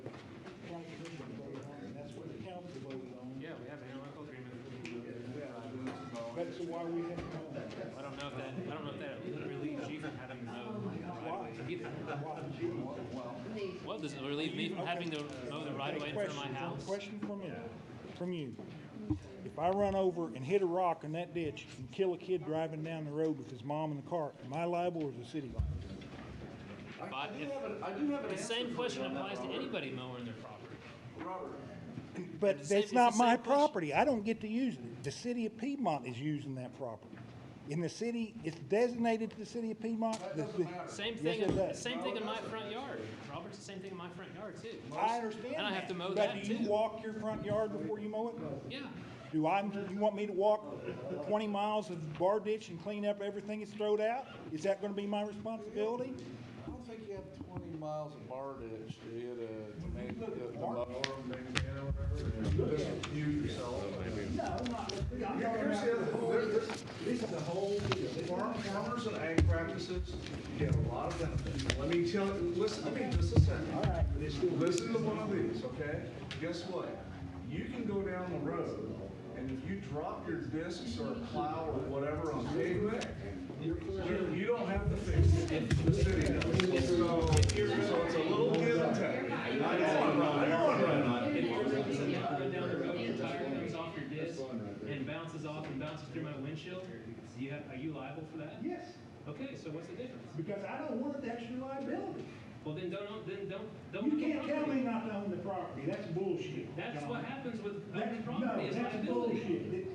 to why we have no I don't know if that, I don't know if that relieves you from having no right of way either. Well, does it relieve me from having to mow the right of way in front of my Question, house? Question from you, from you. If I run over and hit a rock in that ditch and kill a kid driving down the road with his mom in the car, am I liable or is the city liable? But I do if, have an, I do have an the answer for same you question on that, applies to Robert. anybody mowing their property. Robert, But It's the same- that's it's the not same my question. property. I don't get to use it. The city of Piedmont is using that property. In the city, it's designated to the city of Piedmont. that The- doesn't the- matter. Same Yes, thing, it in- does. same thing in my front yard. Robert's the same thing in my front yard too. I understand And I have that. to mow that But do too. you walk your front yard before you mow it? Yeah, Do I, you want me to walk twenty miles of bar ditch and clean up everything that's thrown out? Is that gonna be my responsibility? I don't think you have twenty miles of bar ditch, do you, to, to make, to to mow or maintain or whatever? Just you yourself. Here- Here's the other, there- there's, this is a whole, farm, farmers and ag practices get a lot of benefits. Let me tell, listen to me just a second. All right. Listen to one of these, okay? Guess what? You can go down the road, and if you drop your discs or plow or whatever on pavement, you you don't have to fix it, the city does. So, so it's a little give and take. I know, I know, I know. If you're releasing the run down the road, your tire comes off your disc and bounces off and bounces through my windshield, do you have, are you liable for that? Yes, Okay, so what's the difference? because I don't want the extra liability. Well, then don't, own- then don't, don't. You own the can't tell property. me not to own the property, that's bullshit. That's John. what happens with That's- owning property, is No, that's liability. bullshit.